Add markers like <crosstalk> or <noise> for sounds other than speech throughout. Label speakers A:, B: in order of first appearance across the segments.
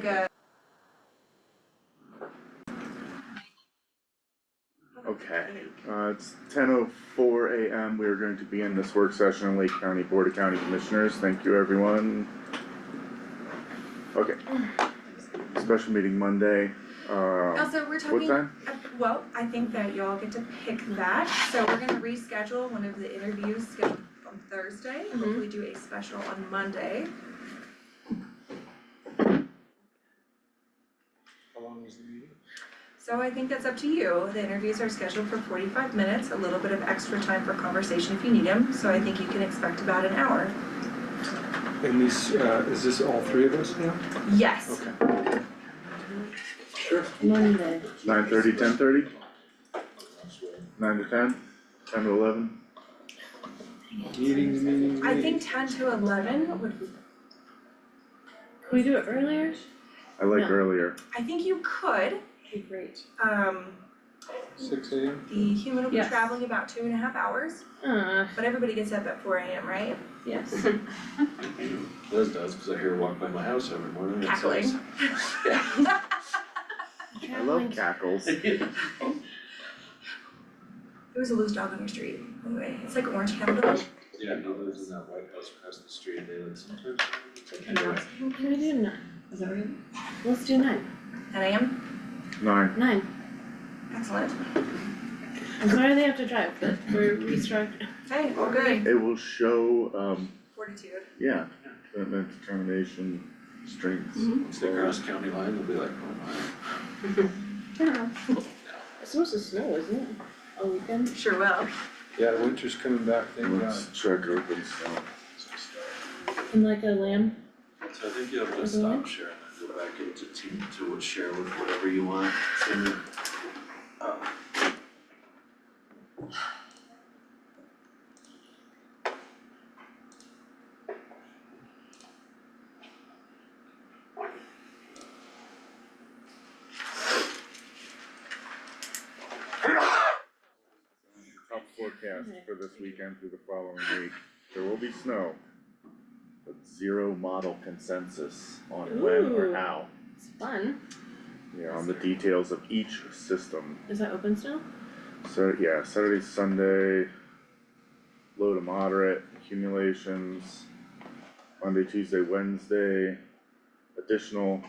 A: Good.
B: Okay, uh, it's ten oh four AM, we are going to begin this work session on Lake County Board of County Commissioners, thank you, everyone. Okay. Special meeting Monday, uh,
A: Also, we're
B: what
A: talking,
B: time?
A: well, I think that y'all get to pick that, so we're gonna reschedule one of the interviews scheduled on Thursday, and hopefully do a special on Monday.
C: How long is the meeting?
A: So I think that's up to you, the interviews are scheduled for forty-five minutes, a little bit of extra time for conversation if you need them, so I think you can expect about an hour.
C: And these, uh, is this all three of us now?
A: Yes,
C: Okay.
D: Monday.
B: Nine thirty, ten thirty? Nine to ten? Ten to eleven?
C: Meeting, meeting, meeting.
A: I think ten to eleven would,
D: Can we do it earlier?
B: I like
D: No.
B: earlier,
A: I think you could,
D: Okay, great.
A: um,
C: Six AM?
A: the human will be
D: Yes.
A: traveling about two and a half hours,
D: Uh,
A: but everybody gets up at four AM, right?
D: <laughs> yes.
E: Liz does, cause I hear her walk by my house every
D: Mm,
E: morning. It's
A: Cackling.
E: nice.
B: I love cackles.
A: There was a loose dog on your street, anyway, it's like Orange County.
E: Yeah, he lives in that white house across the street, and they live sometimes. Anyway,
D: Well, Can we do nine? Is that right? Let's do nine.
A: Ten AM,
B: <laughs> Nine,
D: Nine.
A: excellent.
D: I'm sorry they have to drive, but we're restructuring.
A: Hey, all good.
B: it will show, um,
A: Fortitude.
B: yeah, commitment, determination, strength.
E: once they cross county line, they'll be like, oh
D: It's supposed to snow, isn't it? All weekend?
A: Sure will.
C: Yeah, winter's coming back, thank God.
B: Let's check open cell.
D: And like a lamb?
E: my. So I think you have to
D: Mhm.
E: stop sharing and go back into team to what- share with whatever you want, and then, uh,
B: Top forecast for this weekend through the following week, there will be snow. But zero model consensus on when or
D: Ooh.
B: how,
D: It's fun.
B: you know, on the details of each system.
D: Is that open snow?
B: So, yeah, Saturday, Sunday, low to moderate accumulations. Monday, Tuesday, Wednesday, additional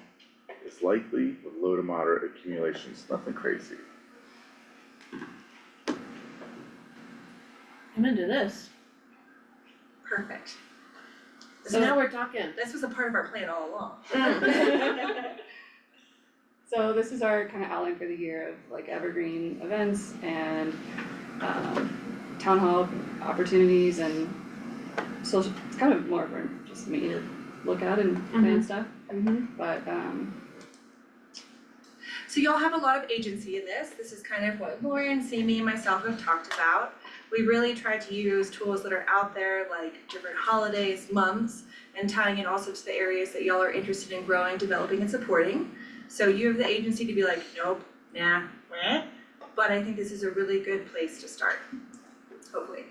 B: is likely with low to moderate accumulations, nothing crazy.
D: I'm into this.
A: Perfect.
D: So now we're talking.
A: This was a part of our plan all along. <laughs>
D: Mm.
F: So this is our kind of outline for the year of like evergreen events and um town hall opportunities and social, it's kind of more for just me to look at and plan stuff,
D: Mm-hmm.
F: but um
A: So y'all have a lot of agency in this. This is kind of what Lauren, Sammy, and myself have talked about. We really try to use tools that are out there like different holidays, months, and tying in also to the areas that y'all are interested in growing, developing, and supporting. So you have the agency to be like, nope, nah, meh. But I think this is a really good place to start, hopefully.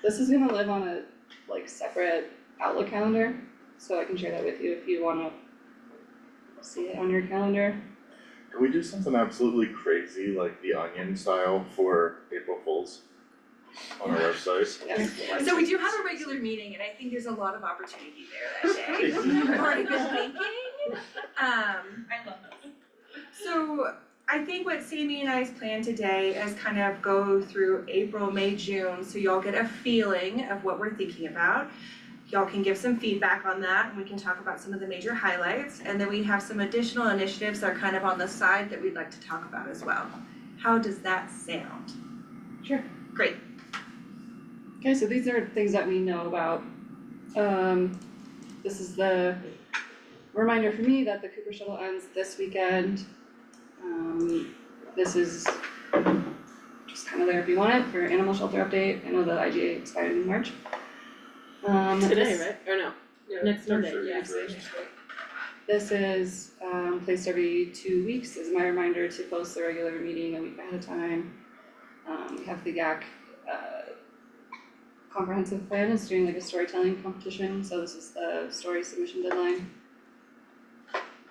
F: this is gonna live on a like separate Outlook calendar, so I can share that with you if you wanna see it on your calendar.
B: Can we do something absolutely crazy like the onion style for April Fools on our website?
A: So we do have a regular meeting and I think there's a lot of opportunity there that day. I've already been thinking. Um,
G: I love those.
A: so I think what Sammy and I's plan today is kind of go through April, May, June, so y'all get a feeling of what we're thinking about. Y'all can give some feedback on that and we can talk about some of the major highlights. And then we have some additional initiatives that are kind of on the side that we'd like to talk about as well. How does that sound?
F: Okay, so these are things that we know about. Um, this is the reminder for me that the Cooper Shuttle ends this weekend. Um, this is just kind of there if you want it for animal shelter update. I know the IGA expired in March. Um,
D: Today,
F: this-
D: right? Or no? Next Monday,
E: sure.
D: yeah.
F: This is, um, placed every two weeks as my reminder to post the regular meeting a week ahead of time. Um, we have the GAC, uh, comprehensive plan is doing like a storytelling competition, so this is the story submission deadline.